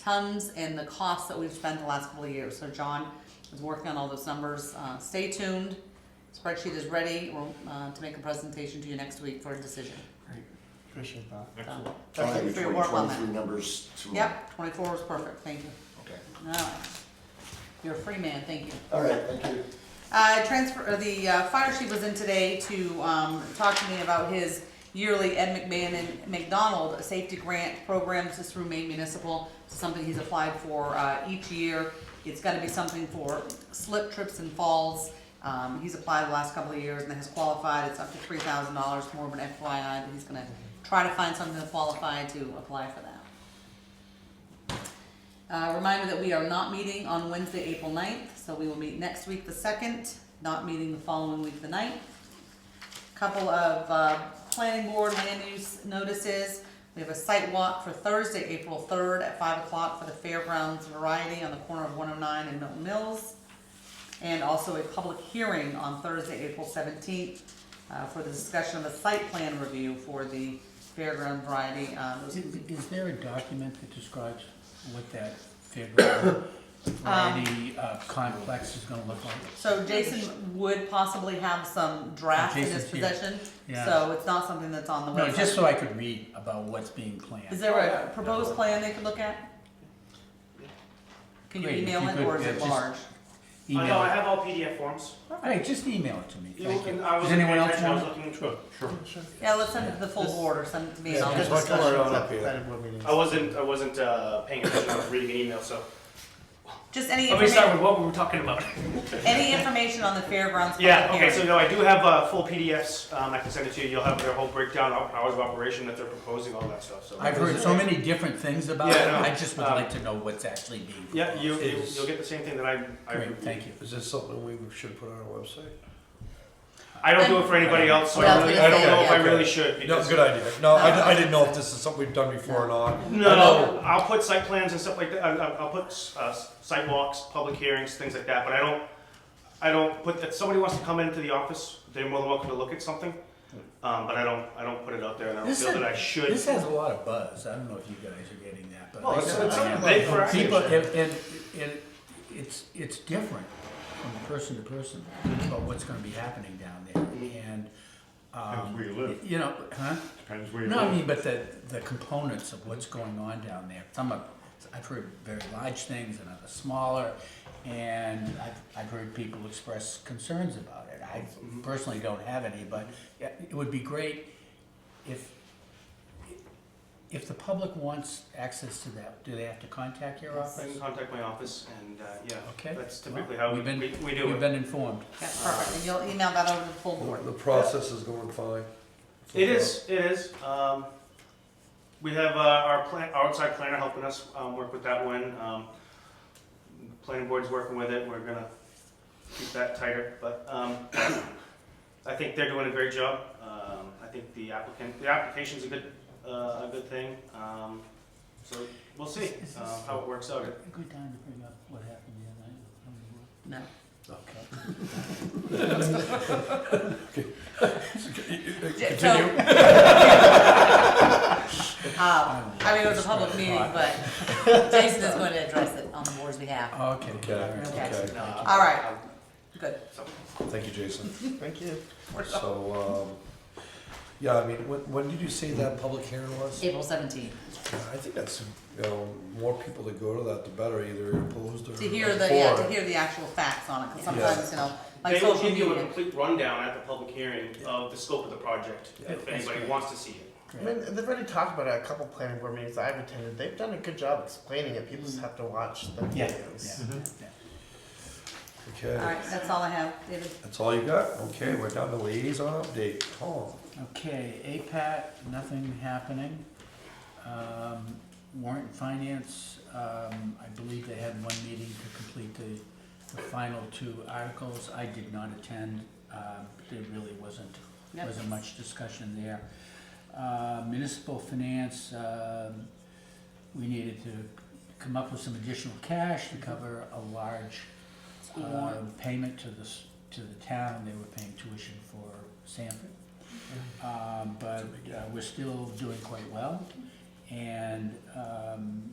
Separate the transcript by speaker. Speaker 1: tons and the costs that we've spent the last couple of years. So John is working on all those numbers. Uh, stay tuned. Spreadsheet is ready We'll, uh, to make a presentation to you next week for a decision.
Speaker 2: Great, appreciate that.
Speaker 1: So,
Speaker 3: Excellent.
Speaker 1: Thank you for your work on that.
Speaker 4: numbers tomorrow.
Speaker 1: Yep, twenty-four was perfect, thank you.
Speaker 4: Okay.
Speaker 1: All right. You're a free man, thank you.
Speaker 4: All right, thank you.
Speaker 1: Uh, transfer, or the, uh, fire chief was in today to, um, talk to me about his yearly Ed McMahon and McDonald Safety Grant programs. This is through Maine Municipal, It's something he's applied for, uh, each year. It's gotta be something for slip, trips and falls. Um, he's applied the last couple of years and has qualified. It's up to three thousand dollars, more of an FYI, but he's gonna try to find something to qualify to apply for that. Uh, reminder that we are not meeting on Wednesday, April 9th, so we will meet next week, the second, not meeting the following week, the 9th. Couple of, uh, planning board land use notices. We have a site walk for Thursday, April third at five o'clock for the Fairgrounds Variety on the corner of one oh nine and Milton Mills. And also a public hearing on Thursday, April seventeenth, uh, for the discussion of a site plan review for the Fairground Variety, um,
Speaker 2: Is, is there a document that describes what that fairground variety uh, complex is gonna look like?
Speaker 1: Um, So Jason would possibly have some draft in his
Speaker 2: Jason's here.
Speaker 1: possession,
Speaker 2: Yeah.
Speaker 1: so it's not something that's on the
Speaker 2: No, just
Speaker 1: website.
Speaker 2: so I could read about what's being planned.
Speaker 1: Is there a proposed plan they could look at? Can you
Speaker 2: Great, if
Speaker 1: email
Speaker 2: you
Speaker 1: it
Speaker 2: could,
Speaker 1: or is
Speaker 2: yeah,
Speaker 1: it
Speaker 2: just-
Speaker 1: large?
Speaker 3: I know, Oh, I
Speaker 2: Email.
Speaker 3: have all PDF forms.
Speaker 2: Hey, just email it to me,
Speaker 3: You
Speaker 2: thank you.
Speaker 3: can- I
Speaker 2: Does
Speaker 3: wasn't
Speaker 2: anyone
Speaker 3: paying
Speaker 2: else
Speaker 3: attention, I was
Speaker 2: want?
Speaker 3: looking
Speaker 5: Sure, sure, sure.
Speaker 1: Yeah, let's send it to the full board or send it to me and I'll
Speaker 5: Yeah,
Speaker 1: just.
Speaker 5: just
Speaker 1: discuss it.
Speaker 5: discussion up here.
Speaker 2: Planning board meetings.
Speaker 3: I wasn't, I wasn't uh, paying attention, I was reading an email, so.
Speaker 1: Just any
Speaker 3: Let me start
Speaker 1: information,
Speaker 3: with what we were talking about.
Speaker 1: any information on the fairgrounds
Speaker 3: Yeah,
Speaker 1: public
Speaker 3: okay, so
Speaker 1: hearing.
Speaker 3: no, I do have uh, full PDFs, um, I can send it to you, you'll have their whole breakdown, of hours of operation that they're proposing, all that stuff, so.
Speaker 2: I've heard so many different things about it,
Speaker 3: Yeah, no,
Speaker 2: I just would
Speaker 3: um,
Speaker 2: like to know what's actually being proposed.
Speaker 3: Yeah, you, you-
Speaker 5: Is-
Speaker 3: you'll get the same thing that I, I
Speaker 2: Great,
Speaker 3: reviewed.
Speaker 2: thank you.
Speaker 5: Is this something we should put on our website?
Speaker 3: I don't do it for anybody else, so
Speaker 1: Well, I
Speaker 3: I
Speaker 1: was
Speaker 3: really-
Speaker 1: gonna
Speaker 3: I don't
Speaker 1: say,
Speaker 3: know if I
Speaker 5: yeah.
Speaker 3: really should,
Speaker 5: No,
Speaker 3: because.
Speaker 5: good idea. No, I, di- I didn't know if this is something we've done before or not.
Speaker 3: No, I'll put site plans and stuff like that, I- I'll, I'll put uh, sidewalks, public hearings, things like that, but I don't, I don't put, if somebody wants to come into the office, they're more than welcome to look at something, um, but I don't, I don't put it out there, and I don't
Speaker 2: This
Speaker 3: feel
Speaker 2: is-
Speaker 3: that I should.
Speaker 2: This has a lot of buzz, I don't know if you guys are getting that, but.
Speaker 3: Well,
Speaker 2: I
Speaker 3: it's-
Speaker 2: got-
Speaker 3: it's
Speaker 2: I am.
Speaker 3: big for us.
Speaker 2: People, and, and, and it's, it's different from person to person about what's gonna be happening down there, and, um.
Speaker 6: Depends where you live.
Speaker 2: You know, huh?
Speaker 6: Depends where you
Speaker 2: No, I
Speaker 6: live.
Speaker 2: mean, but the, the components of what's going on down there, some of, I've heard very large things and others smaller, and I've, I've heard people express concerns about it. I
Speaker 3: Mm-hmm.
Speaker 2: personally don't have any, but yeah, it would be great if, if the public wants access to that, do they have to contact your
Speaker 3: I can
Speaker 2: office?
Speaker 3: contact my office and, uh, yeah,
Speaker 2: Okay.
Speaker 3: that's
Speaker 2: well,
Speaker 3: typically how we,
Speaker 2: we've been-
Speaker 3: we we do
Speaker 2: We've
Speaker 3: it.
Speaker 2: been informed.
Speaker 1: Yeah, perfect, and you'll email that over to the full board.
Speaker 5: The process is going fine.
Speaker 3: It is, it is, um, we have, uh, our plan, our outside planner helping us, um, work with that one, um, the planning board's working with it, we're gonna keep that tighter, but, um, I think they're doing a great job, um, I think the applicant, the application's a good, uh, a good thing, um, so we'll see,
Speaker 2: Is this-
Speaker 3: um, how it works out.
Speaker 2: Good time to bring up what happened the other night.
Speaker 1: No,
Speaker 2: Okay.
Speaker 1: J- so- Um, I mean, it was a public meeting, but Jason is going to address it on the board's behalf.
Speaker 2: Okay.
Speaker 5: Okay,
Speaker 2: all right.
Speaker 1: Okay.
Speaker 5: okay.
Speaker 3: Uh,
Speaker 1: All right. Good.
Speaker 3: so-
Speaker 5: Thank you, Jason.
Speaker 2: Thank you.
Speaker 5: So, um, yeah, I mean, when, when did you say that public hearing was?
Speaker 1: April seventeenth.
Speaker 5: Yeah, I think that's, you know, more people that go to that, the better, either opposed or.
Speaker 1: To hear the, yeah,
Speaker 5: for
Speaker 1: to
Speaker 5: it.
Speaker 1: hear the actual facts on it, because
Speaker 5: Yeah.
Speaker 1: sometimes, you know, like
Speaker 3: They will
Speaker 1: social
Speaker 3: give you a
Speaker 1: media.
Speaker 3: complete rundown at the public hearing of the scope of the project,
Speaker 5: Yeah.
Speaker 3: if anybody
Speaker 2: great.
Speaker 3: wants to see it.
Speaker 7: I mean, they've already talked about it at a couple planning board meetings I've attended. They've done a good job explaining it. People just have to watch the
Speaker 2: Mm-hmm. Yeah, Mm-hmm.
Speaker 7: videos.
Speaker 2: yeah, yeah.
Speaker 1: All
Speaker 5: Okay,
Speaker 1: right, that's all I have, David.
Speaker 5: that's all you got? Okay, we're down to liaison update. Tom.
Speaker 2: Okay, APAT, nothing happening. Um, Warrant Finance, um, I believe they had one meeting to complete the, the final two articles. I did not attend, um, there really wasn't,
Speaker 1: Yep.
Speaker 2: wasn't much discussion there. Uh, Municipal Finance, um, we needed to come up with some additional cash to cover a large
Speaker 1: School
Speaker 2: uh,
Speaker 1: board.
Speaker 2: payment to the, s- to the town, they were paying tuition for Sanford. Um, But uh, we're still doing quite well, and um,